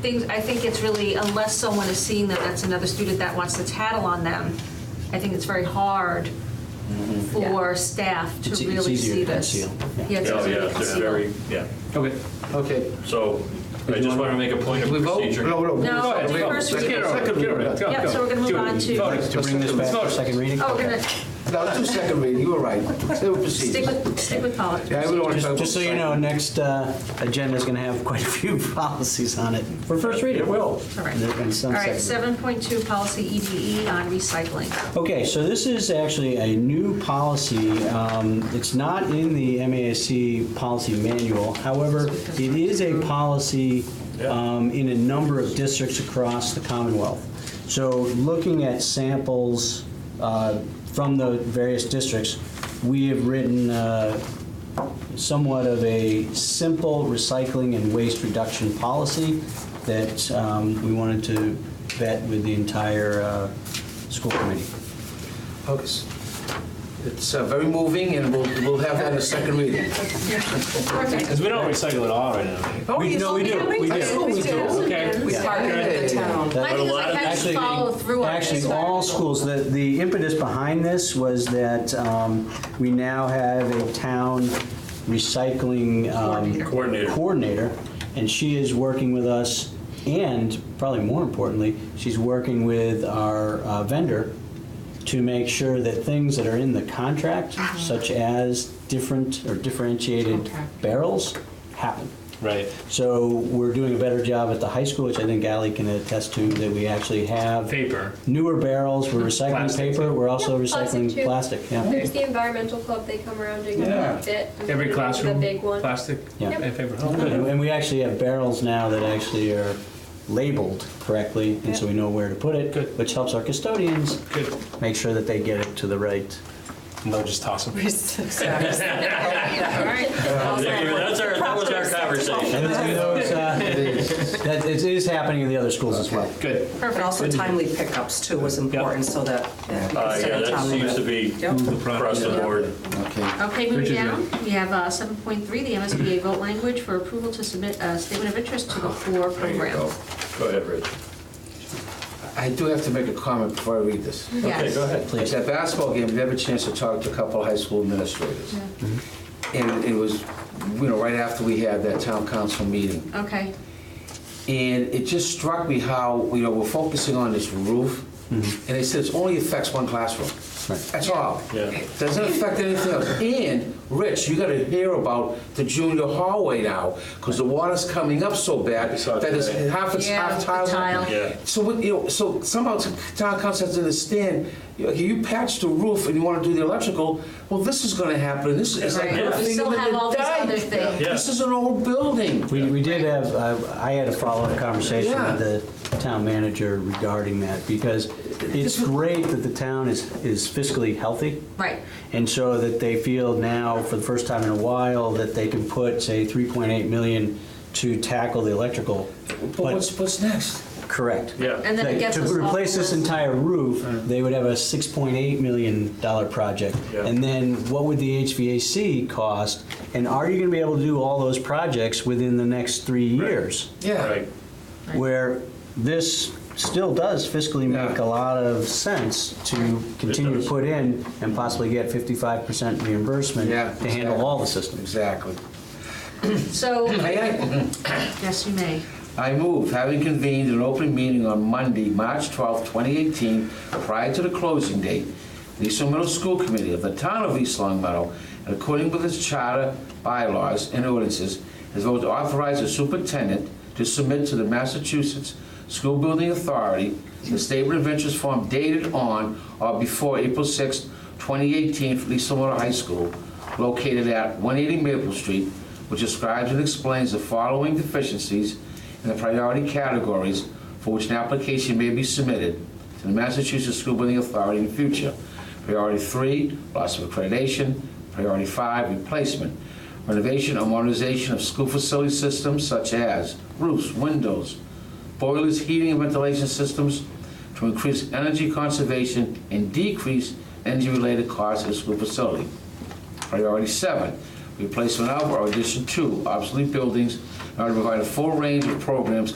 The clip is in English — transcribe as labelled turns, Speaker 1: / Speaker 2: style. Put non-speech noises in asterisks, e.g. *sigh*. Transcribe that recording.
Speaker 1: things, I think it's really, unless someone is seeing that that's another student that wants to tattle on them, I think it's very hard for staff to
Speaker 2: Mm-hmm. It's- e-, it's
Speaker 1: really
Speaker 2: easier
Speaker 1: see
Speaker 2: to
Speaker 1: this.
Speaker 2: conceal, yeah.
Speaker 1: it's
Speaker 3: Oh,
Speaker 1: easier to
Speaker 3: yeah, they're
Speaker 1: conceal.
Speaker 3: very, yeah.
Speaker 2: Okay, okay.
Speaker 3: So I just want to make a point of
Speaker 2: We vote?
Speaker 3: procedure.
Speaker 4: Oh, No, no.
Speaker 1: No,
Speaker 4: we'll-
Speaker 1: do
Speaker 4: we'll-
Speaker 1: first
Speaker 4: let's
Speaker 1: reading.
Speaker 4: get it over with.
Speaker 1: Second Yeah, so we're going to move on to,
Speaker 2: To bring this back for second reading?
Speaker 1: oh, we're going
Speaker 2: Okay.
Speaker 1: to
Speaker 4: No, let's do second reading, you were right. They were
Speaker 1: stick
Speaker 4: proceeding.
Speaker 1: with, stick with politics.
Speaker 4: Yeah, I would only talk
Speaker 2: Just
Speaker 4: about
Speaker 2: just so you
Speaker 4: second.
Speaker 2: know, next uh, agenda's going to have quite a few *laughs* policies on it for first reading. It will.
Speaker 1: All right.
Speaker 2: There have been
Speaker 1: All
Speaker 2: some
Speaker 1: right,
Speaker 2: second-
Speaker 1: 7.2, policy EDE on recycling.
Speaker 2: Okay, so this is actually a new policy. Um, It's not in the MASC policy manual. However, it is a policy um, in a number of districts across the Commonwealth. So looking at samples uh, from the various districts, we have written uh, somewhat of a simple recycling and waste reduction policy that um, we wanted to vet with the entire uh, school committee.
Speaker 4: Focus. It's uh, very moving, and we'll, we'll have that in a second reading.
Speaker 1: Perfect.
Speaker 5: Because we don't recycle at all right now.
Speaker 2: We- no, we do, we do.
Speaker 4: we do.
Speaker 5: Okay.
Speaker 6: We park it at the town.
Speaker 1: My thing is like how do
Speaker 2: Actually,
Speaker 1: you follow through on
Speaker 2: Actually,
Speaker 1: this?
Speaker 2: all schools, the, the impetus behind this was that um, we now have a town recycling. um,
Speaker 3: Coordinator.
Speaker 2: Coordinator, and she is working with us, and probably more importantly, she's working with our uh, vendor to make sure that things that are in the contract,
Speaker 1: Uh-huh.
Speaker 2: such as different or differentiated barrels, happen.
Speaker 5: Right.
Speaker 2: So we're doing a better job at the high school, which I think Ally can attest to, that we actually have.
Speaker 5: Paper.
Speaker 2: Newer barrels, we're recycling
Speaker 5: Plastic.
Speaker 2: paper, we're also
Speaker 7: Yeah, plastic
Speaker 2: recycling
Speaker 7: too.
Speaker 2: plastic, yeah.
Speaker 7: There's the environmental club, they come around doing
Speaker 4: Yeah.
Speaker 7: a bit.
Speaker 5: Every classroom.
Speaker 7: The big one.
Speaker 5: Plastic.
Speaker 2: Yeah.
Speaker 5: And paper. Oh,
Speaker 2: And and we actually have barrels now that actually are labeled correctly, and so we know where to put it,
Speaker 5: Good.
Speaker 2: which helps our custodians
Speaker 5: Good.
Speaker 2: make sure that they get it to the right.
Speaker 5: And they'll just toss them.
Speaker 1: All right.
Speaker 3: That's our, that was our conversation.
Speaker 2: And then those, uh, that it is happening in the other schools as well.
Speaker 5: Good.
Speaker 6: And also timely pickups too was important so that.
Speaker 3: Uh, Yeah, that seems to be across the board.
Speaker 1: Okay, moving
Speaker 5: Richard, yeah.
Speaker 1: down, we have uh, 7.3, the MSBA vote language for approval to submit a statement of interest to the
Speaker 2: Oh,
Speaker 1: floor program.
Speaker 3: Go ahead, Rich.
Speaker 4: I do have to make a comment before I read this.
Speaker 3: Okay,
Speaker 1: Yes.
Speaker 3: go ahead.
Speaker 4: At that basketball game, we had a chance to talk to a couple of high school administrators. And it was, you know, right after we had that town council meeting.
Speaker 1: Okay,
Speaker 4: And it just struck me how, you know, we're focusing on this roof, and they said it only affects one classroom. That's all.
Speaker 3: Yeah.
Speaker 4: Doesn't affect anything else. And, Rich, you gotta hear about the junior hallway now, because the water's coming up so bad
Speaker 3: saw it
Speaker 4: that it's
Speaker 3: today.
Speaker 4: half, it's
Speaker 1: Yeah,
Speaker 4: half
Speaker 1: the
Speaker 4: tile.
Speaker 1: tile.
Speaker 3: Yeah.
Speaker 4: So, what- you know, so somehow t- town council has to understand, you know, you patch the roof and you wanna do the electrical, well, this is gonna happen, this is, it's like.
Speaker 1: Right. Yeah.
Speaker 4: nothing
Speaker 1: You still
Speaker 4: in
Speaker 1: have
Speaker 4: the
Speaker 1: all these
Speaker 4: dike.
Speaker 1: other things.
Speaker 3: Yeah.
Speaker 4: This is an old building.
Speaker 2: We, we did have, uh, I had a follow-up conversation
Speaker 4: Yeah.
Speaker 2: with the town manager regarding that, because it's great that the town is, is fiscally healthy.
Speaker 1: right.
Speaker 2: And so that they feel now, for the first time in a while, that they can put, say, 3.8 million to tackle the electrical.
Speaker 4: But what's, what's next?
Speaker 2: Correct.
Speaker 3: Yeah.
Speaker 1: And then it
Speaker 2: Like,
Speaker 1: gets us
Speaker 2: To replace
Speaker 1: off
Speaker 2: this
Speaker 1: the list.
Speaker 2: entire roof, they would have a $6.8 million dollar project.
Speaker 3: Yeah.
Speaker 2: And then what would the HVAC cost? And are you going to be able to do all those projects within the next three years?
Speaker 4: Yeah.
Speaker 3: Right.
Speaker 2: Where this still does fiscally make a
Speaker 4: Yeah.
Speaker 2: lot of sense to continue
Speaker 3: does.
Speaker 2: to put in and possibly get 55% reimbursement
Speaker 4: Yeah,
Speaker 2: to handle all the systems.
Speaker 4: Exactly.
Speaker 1: So,
Speaker 4: May I?
Speaker 1: yes, you may.
Speaker 4: I move, having convened an open meeting on Monday, March 12, 2018, prior to the closing date, the East Long Meadow School Committee of the Town of East Long Meadow, and according with its charter, bylaws, and ordinances, has voted to authorize the superintendent to submit to the Massachusetts School Building Authority the statement of interest form dated on or before April 6, 2018, for East Long Meadow High School, located at 180 Maple Street, which describes and explains the following deficiencies in the priority categories for which an application may be submitted to the Massachusetts School Building Authority in the future. Priority three, loss of accreditation. Priority five, replacement, renovation or modernization of school facility systems such as roofs, windows, boilers, heating and ventilation systems to increase energy conservation and decrease energy-related costs of school facility. Priority seven, replacement of or addition to obsolete buildings in order to provide a full range of programs